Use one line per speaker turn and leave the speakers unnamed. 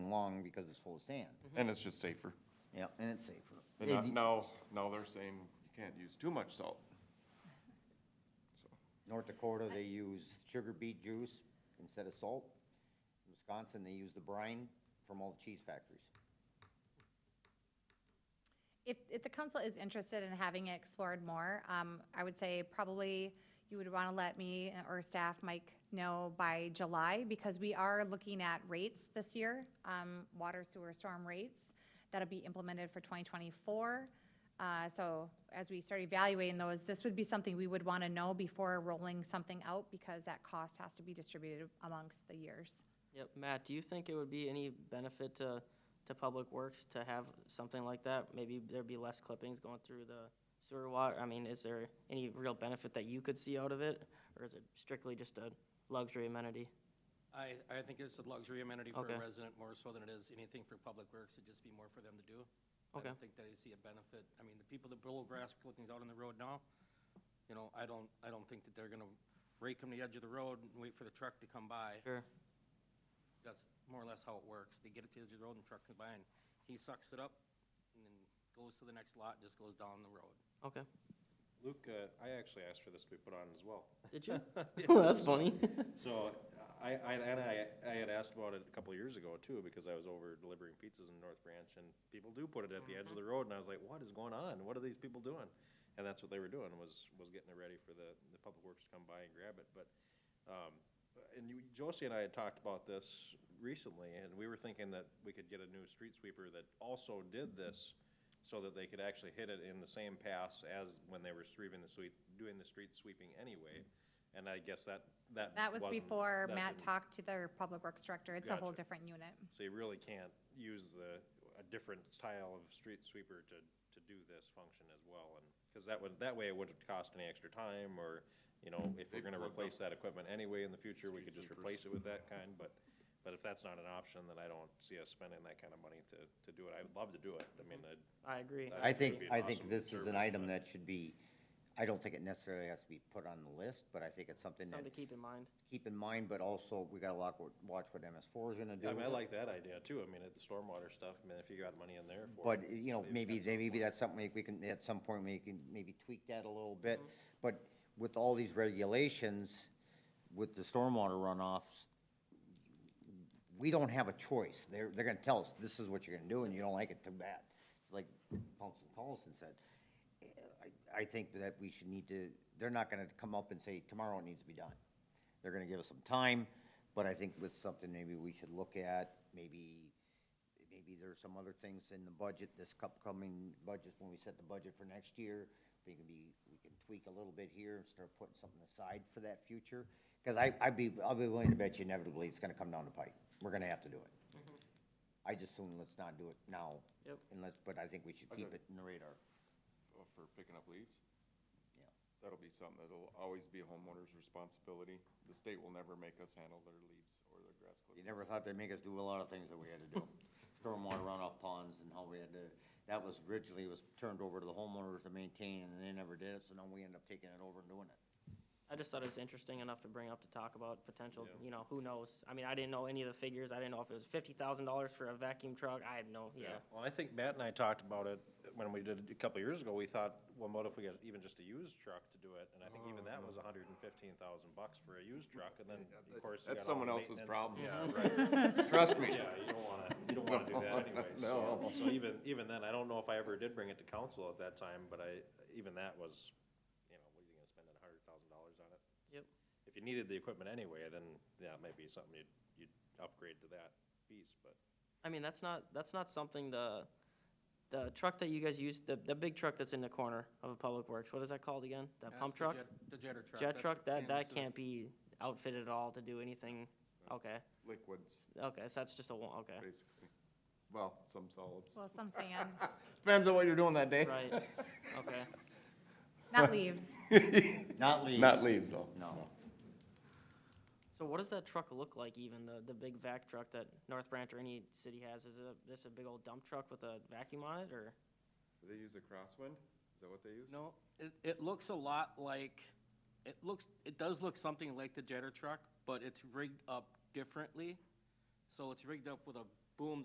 long because it's full of sand.
And it's just safer.
Yeah, and it's safer.
And
They-
not- now, now they're saying you can't use too much salt.
North Dakota, they use sugar beet juice instead of salt. In Wisconsin, they use the brine from all the cheese factories.
If, if the council is interested in having it explored more, um, I would say probably you would want to let me or staff, Mike, know by July, because we are looking at rates this year, um, water, sewer, storm rates. That'll be implemented for twenty twenty-four. Uh, so as we start evaluating those, this would be something we would want to know before rolling something out, because that cost has to be distributed amongst the years.
Yep, Matt, do you think it would be any benefit to, to Public Works to have something like that? Maybe there'd be less clippings going through the sewer water, I mean, is there any real benefit that you could see out of it? Or is it strictly just a luxury amenity?
I, I think it's a luxury amenity for
Okay.
a resident more so than it is anything for public works. It'd just be more for them to do. I
Okay.
don't think that I see a benefit. I mean, the people that blow grass clippings out on the road now, you know, I don't, I don't think that they're gonna rake them to the edge of the road and wait for the truck to come by.
Sure,
That's more or less how it works. They get it to the edge of the road and the truck comes by and he sucks it up and then goes to the next lot, and just goes down the road.
okay.
Luke, uh, I actually asked for this to be put on as well.
Did you? Oh, That's funny.
So I, I, and I, I had asked about it a couple of years ago too, because I was over delivering pizzas in North Branch and people do put it at the edge of the road and I was like, what is going on? What are these people doing? And that's what they were doing was, was getting it ready for the, the public works to come by and grab it. But, um, and you, Josie and I had talked about this recently and we were thinking that we could get a new street sweeper that also did this so that they could actually hit it in the same pass as when they were sweeping the sweep, doing the street sweeping anyway. And I guess that, that
That was
wasn't-
before
that
Matt
didn't-
talked to their public works director. It's a whole
Gotcha.
different unit.
So you really can't use the, a different style of street sweeper to, to do this function as well, and, because that would, that way it wouldn't cost any extra time, or, you know, if we're gonna replace that equipment anyway in the future, we could just replace it with that kind, but, but if that's not an option, then I don't see us spending that kind of money to, to do it. I'd love to do it, I mean, I'd.
I agree.
That
I
would
think,
be an
I think
awesome
this is an
service,
item that should be, I don't think it necessarily has to be put on the list, but I think it's something that,
Something to keep in mind.
keep in mind, but also, we gotta lock, watch what MS four is gonna do.
I mean, I like that idea too, I mean, at the stormwater stuff, I mean, if you got money in there for.
But,
it,
you know,
they've
maybe,
got some
maybe that's something we- we can, at some point, we can maybe tweak that a little bit. But with all these regulations, with the stormwater runoffs, we don't have a choice. They're, they're gonna tell us, this is what you're gonna do, and you don't like it, too bad. It's like Paulson Paulson said. I, I think that we should need to, they're not gonna come up and say, tomorrow it needs to be done. They're gonna give us some time, but I think with something maybe we should look at, maybe, maybe there's some other things in the budget, this upcoming budget, when we set the budget for next year, we can be, we can tweak a little bit here and start putting something aside for that future. Cause I, I'd be, I'll be willing to bet you inevitably it's gonna come down the pipe. We're gonna have to do it. I just assume let's not do it now.
Yep.
Unless, but I think we should keep
Okay.
it in the radar.
f- for picking up leaves.
Yeah.
That'll be something that'll always be a homeowner's responsibility. The state will never make us handle their leaves or their grass
You
clippings.
never thought they'd make us do a lot of things that we had to do. Stormwater runoff ponds and how we had to, that was originally was turned over to the homeowners to maintain and they never did it, so now we end up taking it over and doing it.
I just thought it was interesting enough to bring up to talk about potential, you know, who knows? I mean, I didn't know any of the figures. I didn't know if it was fifty thousand dollars for a vacuum truck. I had no, yeah.
Well, I think Matt and I talked about it when we did it a couple of years ago, we thought, well, what if we got even just a used truck to do it? And I think even that
Mm-hmm.
was hundred and fifteen thousand bucks for a used truck, and then, of course. you
That's
got all
someone
the
else's
maintenance.
problem.
Yeah,
Trust me.
yeah, you don't wanna, you don't wanna do that anyway, so, so even, even then, I don't know if I ever did bring it to council at that time, but I, even that was, you know, what are you gonna spend a hundred thousand dollars on it?
Yep.
If you needed the equipment anyway, then, yeah, it might be something you'd, you'd upgrade to that piece, but.
I mean, that's not, that's not something the, the truck that you guys use, the, the big truck that's in the corner of a public works, what is that called again? That
That's
pump
the
truck?
jet- The jetter truck.
Jet
That's
truck,
what
that, that
Canvas is.
can't be outfitted at all to do anything, okay,
Liquids,
okay, so that's just a one, okay,
basically. Well, some solids.
Well, some sand,
Depends on what you're doing that day.
right, okay.
not leaves.
Not leaves.
Not leaves though.
No.
So what does that truck look like even, the, the big vac truck that North Branch or any city has, is it, this a big old dump truck with a vacuum on it, or?
They use a crosswind? Is that what they use?
No, it, it looks a lot like, it looks, it does look something like the jetter truck, but it's rigged up differently. So it's rigged up with a boom